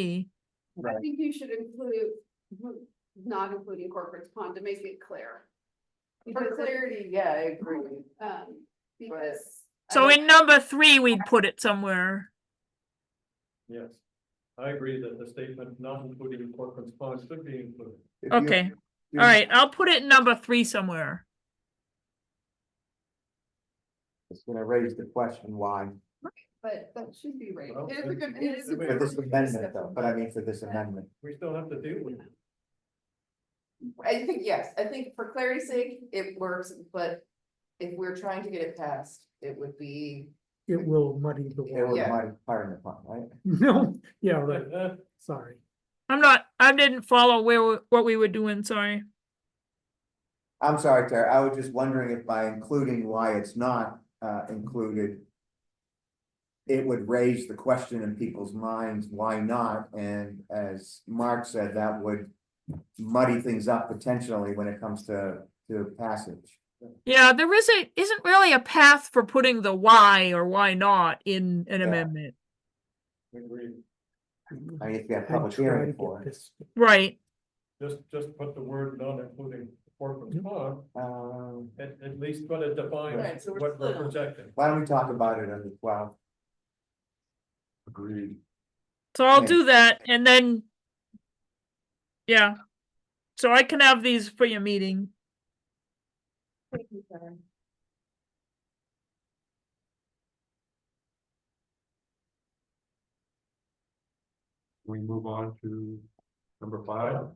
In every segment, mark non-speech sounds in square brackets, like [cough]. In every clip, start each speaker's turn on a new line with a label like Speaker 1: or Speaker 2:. Speaker 1: be.
Speaker 2: I
Speaker 3: Right.
Speaker 2: think you should include, not including corporate pond to make it clear.
Speaker 4: For clarity, yeah, I agree.
Speaker 2: Um, because
Speaker 4: I
Speaker 1: So
Speaker 4: don't-
Speaker 1: in number three, we'd put it somewhere.
Speaker 5: Yes, I agree that the statement not including corporate funds should be included.
Speaker 3: If you-
Speaker 1: Okay,
Speaker 3: you-
Speaker 1: all right, I'll put it in number three somewhere.
Speaker 3: It's gonna raise the question why,
Speaker 2: but that should be right.
Speaker 5: Well,
Speaker 2: It is a good, it is. a
Speaker 5: wait,
Speaker 3: for
Speaker 2: good-
Speaker 3: this amendment though, but I mean for this amendment.
Speaker 5: We still have to deal with it.
Speaker 4: I think, yes, I think for clarity's sake, it works, but if we're trying to get it passed, it would be.
Speaker 6: It will muddy the [laughs]
Speaker 3: It
Speaker 6: water.
Speaker 3: was
Speaker 4: Yeah.
Speaker 3: my partner pump, right?
Speaker 6: No, yeah, right,
Speaker 5: Uh,
Speaker 6: sorry.
Speaker 1: I'm not, I didn't follow where, we- what we were doing, sorry.
Speaker 3: I'm sorry, Tara, I was just wondering if by including why it's not uh included. It would raise the question in people's minds, why not? And as Mark said, that would muddy things up potentially when it comes to to passage.
Speaker 1: Yeah, there isn't, isn't really a path for putting the why or why not in an
Speaker 3: Yeah.
Speaker 1: amendment,
Speaker 5: I agree,
Speaker 3: I mean, if you have
Speaker 6: I
Speaker 3: public
Speaker 6: try to
Speaker 3: hearing
Speaker 6: get
Speaker 3: for it.
Speaker 6: this.
Speaker 1: right?
Speaker 5: just, just put the word not including corporate fund,
Speaker 3: Um,
Speaker 5: at, at least try to define
Speaker 4: Right, so we're
Speaker 5: what we're
Speaker 4: split on.
Speaker 5: projecting.
Speaker 3: why don't we talk about it on the twelfth?
Speaker 5: Agreed.
Speaker 1: So I'll
Speaker 3: Yeah.
Speaker 1: do that and then. Yeah. So I can have these for your meeting.
Speaker 5: We move on to number five.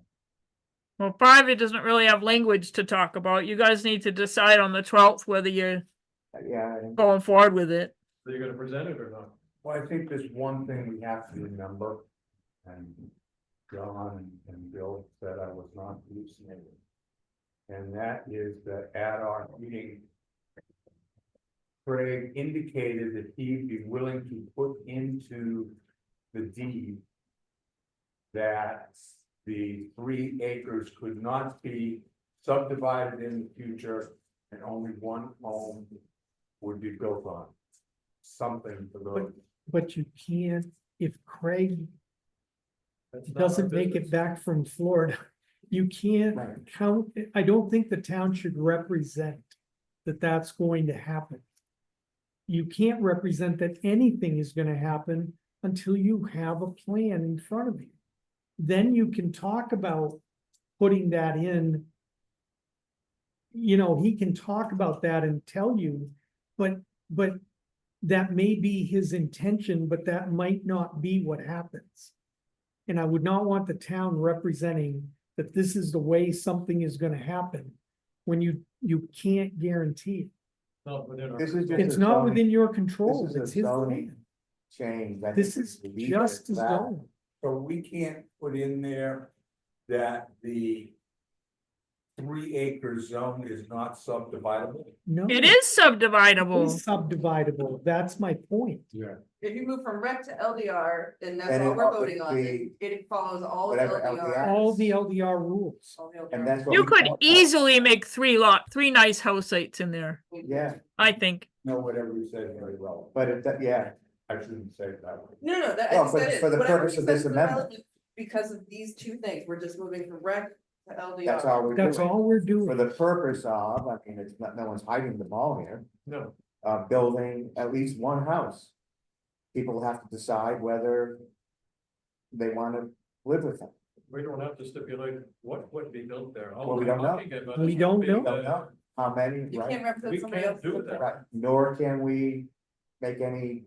Speaker 1: Well, five, it doesn't really have language to talk about. You guys need to decide on the twelfth whether you're
Speaker 3: Uh, Yeah, I think-
Speaker 1: going forward with it.
Speaker 5: Are you gonna present it or not?
Speaker 7: Well, I think there's one thing we have to remember, and John and- and Bill said I was not hallucinating. And that is that at our meeting, Craig indicated that he'd be willing to put into the deed that the three acres could not be subdivided in the future and only one home would be built on. Something for those.
Speaker 6: But you can't, if Craig
Speaker 5: That's not our
Speaker 6: doesn't make it
Speaker 5: business.
Speaker 6: back from Florida, you can't
Speaker 3: Right.
Speaker 6: count, I don't think the town should represent that that's going to happen. You can't represent that anything is gonna happen until you have a plan in front of you. Then you can talk about putting that in. You know, he can talk about that and tell you, but, but that may be his intention, but that might not be what happens. And I would not want the town representing that this is the way something is gonna happen when you, you can't guarantee
Speaker 5: Not within our.
Speaker 3: This is
Speaker 6: it.
Speaker 3: just-
Speaker 6: It's
Speaker 3: a
Speaker 6: not
Speaker 3: zoning-
Speaker 6: within your control,
Speaker 3: this is a
Speaker 6: it's his
Speaker 3: zoning
Speaker 6: plan.
Speaker 3: change. I
Speaker 6: This
Speaker 3: think
Speaker 6: is
Speaker 3: we leave it
Speaker 6: just
Speaker 3: at
Speaker 6: as
Speaker 3: that.
Speaker 6: zone.
Speaker 7: So we can't put in there that the. Three acre zone is not subdividable.
Speaker 6: no.
Speaker 1: It is
Speaker 6: Oh. It
Speaker 1: subdividable.
Speaker 6: is Subdividable, that's my point.
Speaker 7: Yeah.
Speaker 4: If you move from rec to LDR, then that's
Speaker 3: And
Speaker 4: all
Speaker 3: it
Speaker 4: we're
Speaker 3: all would
Speaker 4: voting on, it
Speaker 3: be
Speaker 4: it follows all of
Speaker 3: whatever LDR.
Speaker 4: LDR.
Speaker 6: All the LDR rules.
Speaker 4: all the LDR.
Speaker 3: And that's what.
Speaker 1: You
Speaker 3: we
Speaker 1: could
Speaker 3: talked about.
Speaker 1: easily make three lot, three nice house sites in there,
Speaker 3: Yeah,
Speaker 1: I think.
Speaker 7: No, whatever you said very well, but
Speaker 3: but it, yeah,
Speaker 7: I shouldn't say it that way.
Speaker 4: No, no, that,
Speaker 3: No,
Speaker 4: I
Speaker 3: for-
Speaker 4: said it.
Speaker 3: for the
Speaker 4: Whatever
Speaker 3: purpose
Speaker 4: you
Speaker 3: of
Speaker 4: said
Speaker 3: this
Speaker 4: for
Speaker 3: amendment.
Speaker 4: relevant, Because of these two things, we're just moving from rec to LDR.
Speaker 3: that's all we're doing.
Speaker 6: That's all we're
Speaker 3: For
Speaker 6: doing.
Speaker 3: the purpose of, I mean, it's not, no one's hiding the ball here,
Speaker 5: No,
Speaker 3: uh, building at least one house. People have to decide whether they wanna live with it.
Speaker 5: we don't have to stipulate what would be built there. All
Speaker 3: Well, we
Speaker 5: we're
Speaker 3: don't know.
Speaker 5: talking about
Speaker 6: We
Speaker 5: is
Speaker 6: don't
Speaker 5: being
Speaker 3: know.
Speaker 5: the-
Speaker 3: Don't know. How many,
Speaker 4: You can't
Speaker 3: right?
Speaker 4: represent
Speaker 5: We
Speaker 4: somebody
Speaker 5: can't
Speaker 4: else.
Speaker 5: do that.
Speaker 3: Right, nor can we make any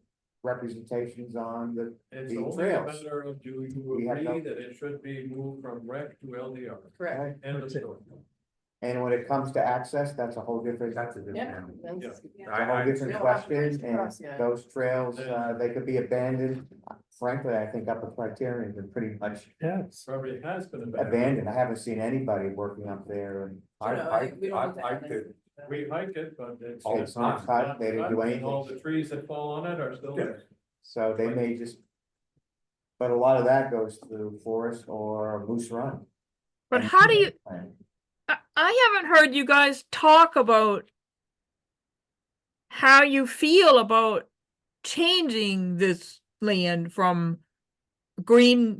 Speaker 3: representations on the,
Speaker 5: It's
Speaker 3: the
Speaker 5: only a
Speaker 3: trails.
Speaker 5: matter of do
Speaker 3: We
Speaker 5: you
Speaker 3: have
Speaker 5: agree
Speaker 3: no-
Speaker 5: that it should be moved from rec to LDR?
Speaker 4: Correct.
Speaker 5: End of
Speaker 6: That's it.
Speaker 5: story.
Speaker 3: and when it comes to access, that's a whole different,
Speaker 7: That's a different.
Speaker 4: Yeah.
Speaker 7: animal.
Speaker 4: that's- yeah.
Speaker 3: a
Speaker 7: I,
Speaker 3: whole
Speaker 7: I,
Speaker 3: different
Speaker 4: Yeah.
Speaker 3: question,
Speaker 4: Cross, yeah.
Speaker 3: and those trails, uh, they could be abandoned. Frankly, I think up at Criterion's been pretty much
Speaker 6: Yes.
Speaker 5: Probably has been abandoned.
Speaker 3: abandoned. I haven't seen anybody working up there and.
Speaker 7: I,
Speaker 4: No,
Speaker 7: I,
Speaker 4: we don't
Speaker 7: I
Speaker 4: need to
Speaker 7: like
Speaker 4: add
Speaker 7: to,
Speaker 5: We hike it, but it's.
Speaker 7: Oh,
Speaker 3: It's not cut, they didn't do
Speaker 5: And All
Speaker 3: anything,
Speaker 5: the trees that fall on it are still there.
Speaker 3: so they may just. But a lot of that goes through forest or Moose Run.
Speaker 1: But how do you, I, I haven't heard you guys talk about how you feel about changing this land from green